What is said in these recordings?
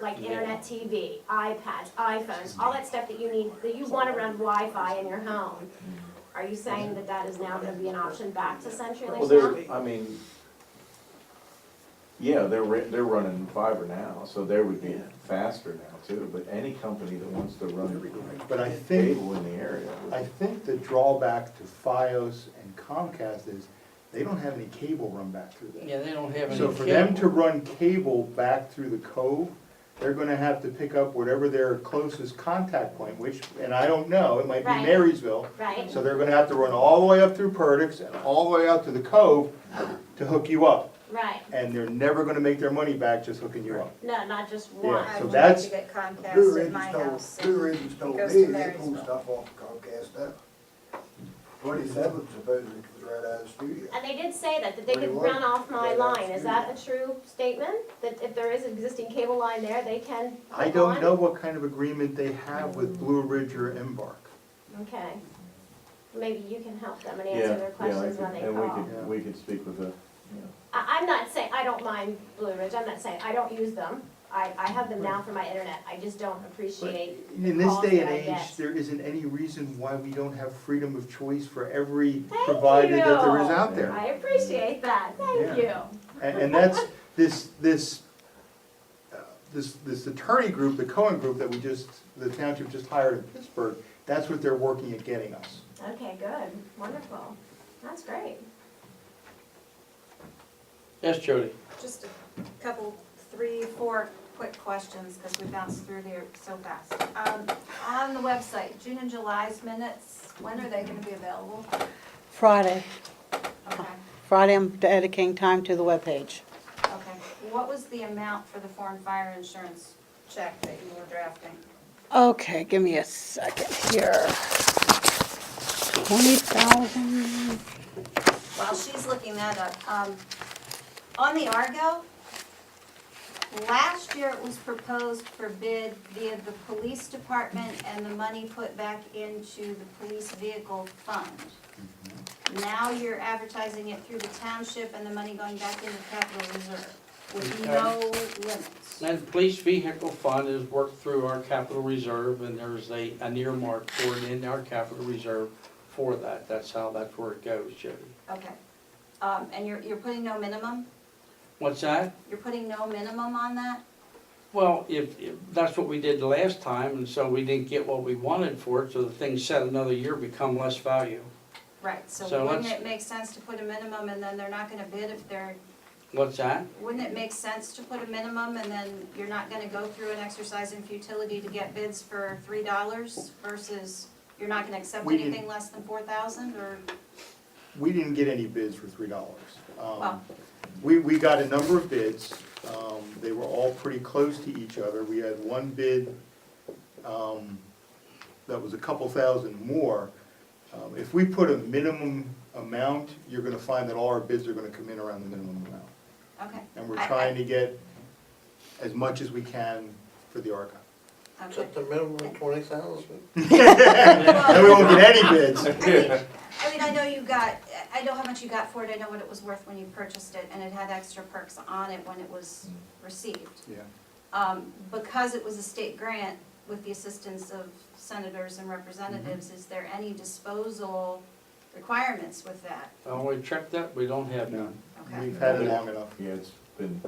like internet TV, iPads, iPhones, all that stuff that you need, that you want to run Wi-Fi in your home. Are you saying that that is now going to be an option back to Well, CenturyLink now? they're, I mean, yeah, they're, ri- they're running fiber now, so they would be faster now too, but any company that wants to run But I think, cable in the area. would- I think the drawback to Fios and Comcast is they don't have any cable run back through there. Yeah, they don't have any. So for them to cable. run cable back through the cove, they're gonna have to pick up whatever their closest contact point, which, and I don't know, it might be Right. Marysville. Right? So they're gonna have to run all the way up through Perdix and all the way out to the cove to hook you up. Right. And they're never gonna make their money back just hooking you up. No, not just one. Yeah, I so would like that's- to get Blue Comcast at Ridge my told, house. Blue Ridge told Goes me to they pulled Marysville. stuff off Comcast up. Twenty-seven supposedly was right out of the studio. And they did say that, that they could Well, you run off my well, line, is that that's a true statement? That if there is an existing cable line there, they can? I hook don't on? know what kind of agreement they have with Blue Ridge or Embark. Okay. Maybe you can help them and Yeah, answer their yeah, I questions could- when they And we call. Yeah. could, we could speak with the, I, I'm not saying, I don't mind Blue Ridge, I'm not saying, I don't use them. I, I have them now for my internet, I just don't appreciate, In this day Calls that and I age, get. there isn't any reason why we don't have freedom of choice for every Thank provider that there is you. out there. I appreciate that, thank you. And, and that's, this, this, uh, this, this attorney group, the Cohen group that we just, the township just hired in Pittsburgh, that's what they're working at getting us. Okay, good, wonderful, that's great. Yes, Jody. Just a couple, three, four quick questions, because we bounced through here so fast. Um, On the website, June and July's minutes, when are they gonna be available? Friday. Okay, Friday, I'm dedicating time to the webpage. okay. What was the amount for the foreign fire insurance check that you were drafting? Okay, give me a second here. Twenty thousand, While she's looking that up, um, on the Argo, last year it was proposed for bid via the police department and the money put back into the police vehicle fund. Now you're advertising it through the township and the money going back into capital reserve with no limits. And the police vehicle fund is worked through our capital reserve, and there's a, an earmark for it in our capital reserve for that. That's how, that's where it goes, Jody. Okay, um, and you're, you're putting no minimum? What's that? You're putting no minimum on that? Well, if, if, that's what we did the last time, and so we didn't get what we wanted for it, so the thing set another year become less value. Right, so So wouldn't let's- it make sense to put a minimum and then they're not gonna bid if they're What's that? Wouldn't it make sense to put a minimum and then you're not gonna go through an exercise in futility to get bids for three dollars versus you're not gonna accept We didn't- anything less than four thousand or, We didn't get any bids for three dollars. Um, Wow. We, we got a number of bids, um, they were all pretty close to each other, we had one bid, um, that was a couple thousand more. Um, if we put a minimum amount, you're gonna find that all our bids are gonna come in around the minimum amount. okay. And we're I- I- trying to get as much as we can for the archive. Okay. Set the minimum of twenty thousand. And we Well, won't get any bids. I mean, I mean, I know you got, I know how much you got for it, I know what it was worth when you purchased it and it had extra perks on it when it was received. Yeah. Um, because it was a state grant with the assistance of senators and representatives, is there any disposal requirements with that? Oh, we checked that, we don't have none. Okay. We've had it long enough. yeah, it's been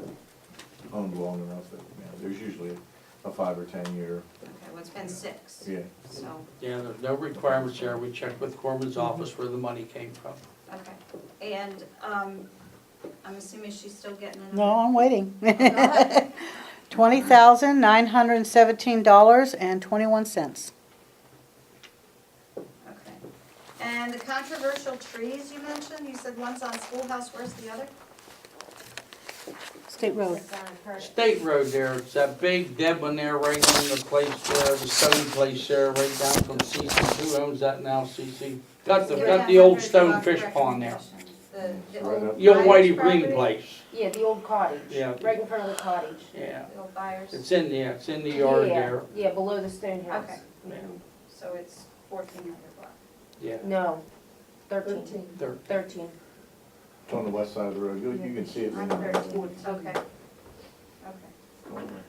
owned long enough that, yeah, there's usually a five or ten year, Okay, well, it's been six, yeah. so, Yeah, there's no requirements there. We checked with Corman's office where the money came from. okay. And, um, I'm assuming she's still getting another. no, I'm waiting. Go ahead. Twenty thousand, nine hundred and seventeen dollars and twenty-one cents. Okay. And the controversial trees you mentioned, you said one's on Schoolhouse, where's the other? State road. It's on her- State road there, it's that big dead one there right on the place where the stone place there, right down from CC. Who owns that now, CC? Got the, got the old stone fish pond there. The, the Right up- old. The old buyer's Whitey Green property? place, Yeah, the old cottage. Yeah. Right in front of the cottage. yeah. The old buyers, It's in, yeah, it's in the yard Yeah, there. Yeah, below the stone house. Okay. so it's fourteen hundred block. Yeah, No, thirteen. there. Thirteen. It's on the west side of the road, you, you can see it. from the- Okay, okay.